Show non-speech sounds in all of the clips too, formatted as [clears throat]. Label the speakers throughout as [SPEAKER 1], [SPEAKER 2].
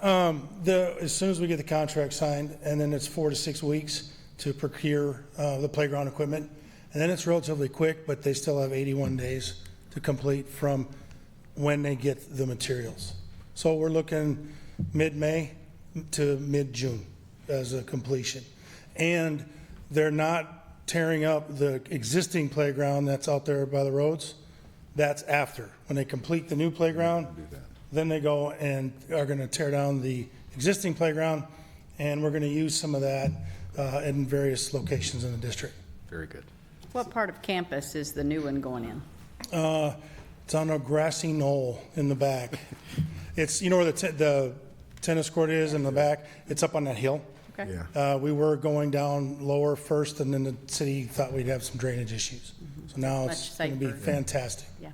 [SPEAKER 1] Um, the, as soon as we get the contract signed, and then it's four to six weeks to procure, uh, the playground equipment. And then it's relatively quick, but they still have eighty-one days to complete from when they get the materials. So we're looking mid-May to mid-June as a completion. And they're not tearing up the existing playground that's out there by the roads. That's after. When they complete the new playground, then they go and are going to tear down the existing playground, and we're going to use some of that uh, in various locations in the district.
[SPEAKER 2] Very good.
[SPEAKER 3] What part of campus is the new one going in?
[SPEAKER 1] Uh, It's on a grassy knoll in the back. It's, you know where the te- the tennis court is in the back? It's up on that hill.
[SPEAKER 3] Okay.
[SPEAKER 1] Uh, We were going down lower first, and then the city thought we'd have some drainage issues. So now it's
[SPEAKER 3] Much
[SPEAKER 1] going to be
[SPEAKER 3] safer.
[SPEAKER 1] fantastic.
[SPEAKER 3] Yeah.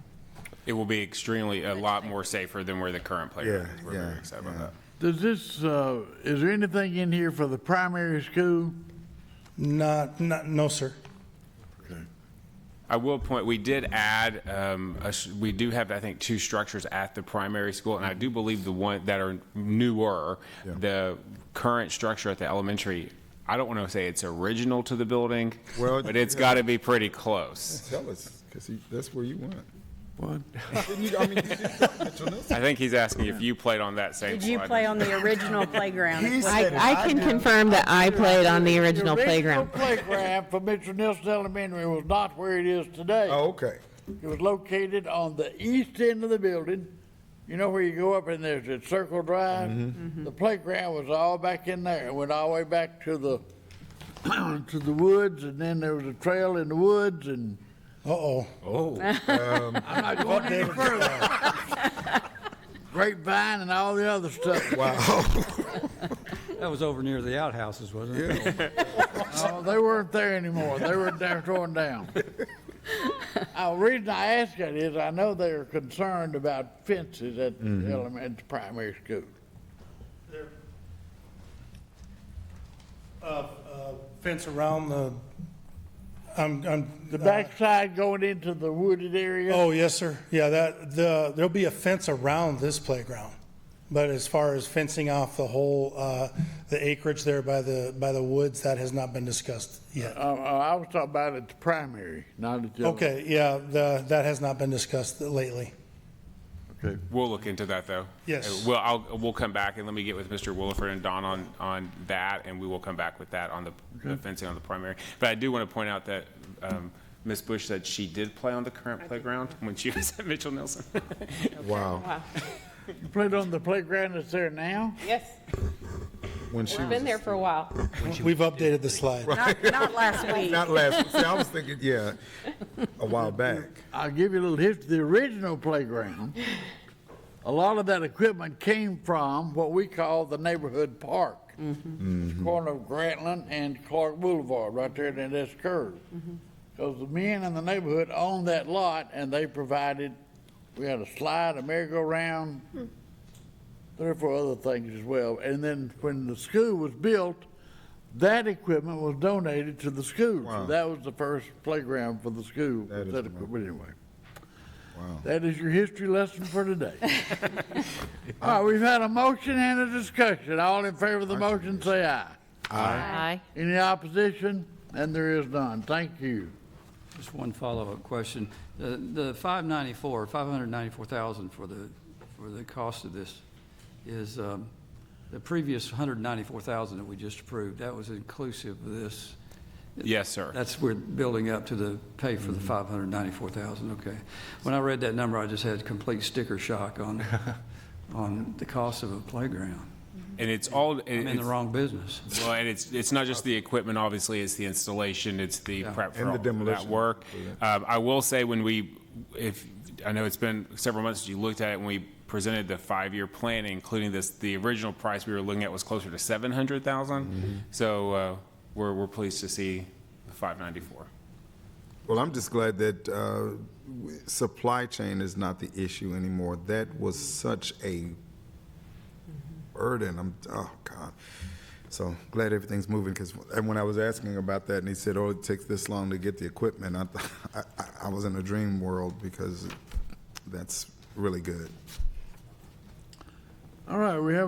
[SPEAKER 4] It will be extremely, a lot more safer than where the current playground
[SPEAKER 5] Yeah,
[SPEAKER 4] is. We're very
[SPEAKER 5] yeah,
[SPEAKER 4] excited about that.
[SPEAKER 6] Does this, uh, is there anything in here for the primary school?
[SPEAKER 1] Not, not, no, sir.
[SPEAKER 4] I will point, we did add, um, a s- we do have, I think, two structures at the primary school, and I do believe the one that are newer, the current structure at the elementary, I don't want to say it's original to the building,
[SPEAKER 5] Well,
[SPEAKER 4] but it's got to be pretty close.
[SPEAKER 3] [laughs]
[SPEAKER 5] Tell us, because that's where you want.
[SPEAKER 6] What?
[SPEAKER 5] Didn't you- I mean, you just told Mitchell Nelson.
[SPEAKER 4] I think he's asking if you played on that same
[SPEAKER 3] Did
[SPEAKER 4] slide.
[SPEAKER 3] you play on the original playground?
[SPEAKER 5] He
[SPEAKER 3] Is what-
[SPEAKER 5] said-
[SPEAKER 7] I, I can confirm that I played on the original
[SPEAKER 6] original [laughs]
[SPEAKER 7] [laughs] playground.
[SPEAKER 6] playground for Mitchell Nelson Elementary was not where it is today.
[SPEAKER 5] Oh, okay.
[SPEAKER 6] It was located on the east end of the building. You know where you go up and there's a circle
[SPEAKER 5] Mm-hmm.
[SPEAKER 7] Mm-hmm.
[SPEAKER 6] drive? The playground was all back in there. It went all the way back to the, [clears throat] to the woods and then there was a trail in the woods and
[SPEAKER 1] Uh-oh.
[SPEAKER 6] Oh.
[SPEAKER 1] [laughs] Um,
[SPEAKER 6] I'm not going any further. Grapevine and all the other stuff.
[SPEAKER 5] Wow.
[SPEAKER 8] That was over near the outhouses, wasn't it?
[SPEAKER 6] No, they weren't there anymore. They were down, torn down. Uh, the reason I ask that is I know they're concerned about fences at the elementary primary school.
[SPEAKER 1] Fence around the, I'm, I'm. uh,
[SPEAKER 6] The backside going into the wooded area.
[SPEAKER 1] Uh-huh. Oh, yes, sir. Yeah, that, the, there'll be a fence around this playground. But as far as fencing off the whole, uh, the acreage there by the, by the woods, that has not been discussed
[SPEAKER 6] Uh,
[SPEAKER 1] yet.
[SPEAKER 6] uh, I was talking about at the primary, not at the.
[SPEAKER 1] Okay, yeah, the, that has not been discussed lately.
[SPEAKER 6] Okay.
[SPEAKER 4] We'll look into that, though.
[SPEAKER 1] Yes.
[SPEAKER 4] Uh, Well, I'll, we'll come back, and let me get with Mr. Williford and Don on, on that, and we will come back with that on the the fencing on the primary. But I do want to point out that um, Ms. Bush said she did play on the current playground when she was at Mitchell Nelson.
[SPEAKER 5] Wow.
[SPEAKER 6] You played on the playground that's there now?
[SPEAKER 7] Yes,
[SPEAKER 5] When she was,
[SPEAKER 7] been there for a while.
[SPEAKER 1] We've updated the slide.
[SPEAKER 3] Not not last week.
[SPEAKER 5] not last, see, I was thinking, yeah, a while back.
[SPEAKER 6] I'll give you a little history. The original playground, a lot of that equipment came from what we call the neighborhood park. It's corner of Grantland and Clark Boulevard, right there in this curve. Because the men in the neighborhood owned that lot and they provided, we had a slide, a merry-go-round, three or four other things as well. And then when the school was built, that equipment was donated to the school. So
[SPEAKER 5] Wow.
[SPEAKER 6] that was the first playground for the school.
[SPEAKER 5] That is
[SPEAKER 6] That
[SPEAKER 5] the
[SPEAKER 6] equipment, anyway.
[SPEAKER 5] Wow.
[SPEAKER 6] That is your history lesson for today. All right, we've had a motion and a discussion. All in favor of the motion, say aye.
[SPEAKER 7] Aye.
[SPEAKER 6] Any opposition? And there is none. Thank you.
[SPEAKER 8] [laughs] Just one follow-up question. The the 594, 594,000 for the, for the cost of this is um, the previous 194,000 that we just approved, that was inclusive of this.
[SPEAKER 4] Yes, sir.
[SPEAKER 8] That's, we're building up to the pay for the 594,000, okay. When I read that number, I just had complete sticker shock on, on the cost of a playground.
[SPEAKER 4] And it's all.
[SPEAKER 8] I'm in the
[SPEAKER 4] it's-
[SPEAKER 8] wrong business.
[SPEAKER 4] Well, and it's, it's not just the equipment, obviously, it's the installation, it's the prep for
[SPEAKER 5] And the
[SPEAKER 4] all that
[SPEAKER 5] demolition. Oh,
[SPEAKER 4] work. Um, I will say when we, if, I know it's been several months since you looked at it, when we presented the five-year plan, including this, the original price we were looking at was closer to seven hundred
[SPEAKER 5] Mm-hmm.
[SPEAKER 4] thousand. So, uh, we're, we're pleased to see the five ninety-four.
[SPEAKER 5] Well, I'm just glad that uh, w- supply chain is not the issue anymore. That was such a burden. I'm, oh, God. So glad everything's moving, because when I was asking about that, and he said, oh, it takes this long to get the equipment, I, th- [laughs] I- I- I was in a dream world, because that's really good.
[SPEAKER 6] All right, we have